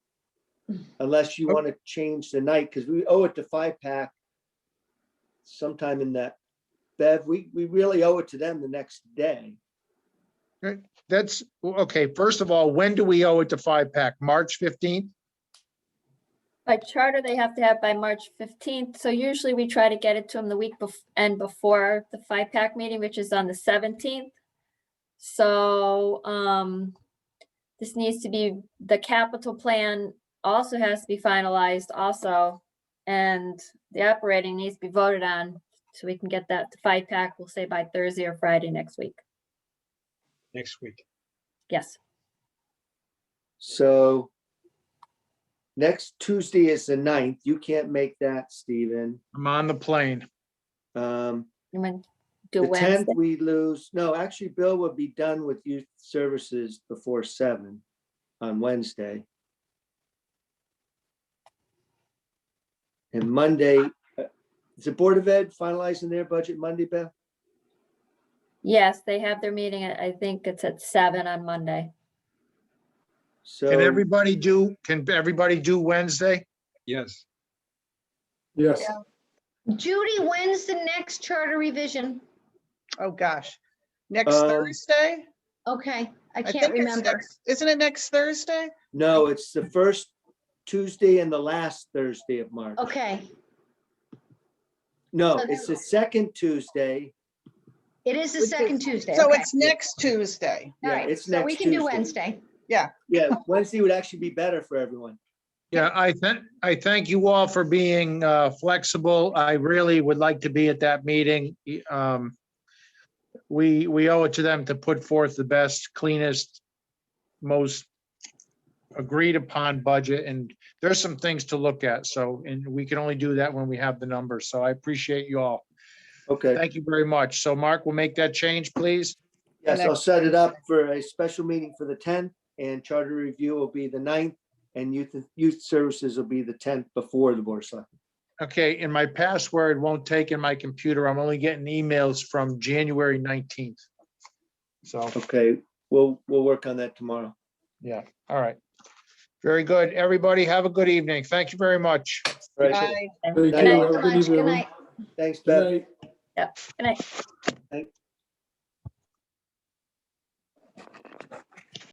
unless you want to change the night, because we owe it to Five Pack sometime in that, Bev, we, we really owe it to them the next day. That's, okay, first of all, when do we owe it to Five Pack? March fifteenth? By charter, they have to have by March fifteenth, so usually we try to get it to them the week bef- and before the five pack meeting, which is on the seventeenth. So, um, this needs to be, the capital plan also has to be finalized also. And the operating needs to be voted on, so we can get that to five pack, we'll say by Thursday or Friday next week. Next week. Yes, So next Tuesday is the ninth. You can't make that, Stephen. I'm on the plane. Um, you want to do the tenth, Wednesday, we lose, no, actually, Bill will be done with youth services before seven on Wednesday. And Monday, uh, is the Board of Ed finalizing their budget Monday, Beth? yes, they have their meeting, I I think it's at seven on Monday. So, Can everybody do, can everybody do Wednesday? Yes, Yes, Judy, when's the next charter revision? Oh, gosh. Next Um, Thursday? Okay, I I can't think it's remember. next- Isn't it next Thursday? no, it's the first Tuesday and the last Thursday of March. Okay, No, So it's the then- second Tuesday. it is the Which is- second Tuesday. So okay. it's next Tuesday. All yeah, right, it's so we next can do Tuesday. Wednesday. Yeah, Wednesday would actually be better for everyone. Yeah, I thank, I thank you all for being uh, flexible. I really would like to be at that meeting. Y- um, We, we owe it to them to put forth the best, cleanest, most agreed upon budget, and there's some things to look at, so, and we can only do that when we have the numbers, so I appreciate you all. Okay, Thank you very much. So Mark, we'll make that change, please. yes, I'll set it up for a special meeting for the tenth and charter review will be the ninth. And youth, youth services will be the tenth before the board of selectmen. Okay, and my password won't take in my computer. I'm only getting emails from January 19th. So. Okay, we'll, we'll work on that tomorrow. Yeah, all right. Very good. Everybody have a good evening. Thank you very much. All right, Bye. Thank you. Good night. Thanks so much. Good night. Thanks, Good Beth. night. Good night.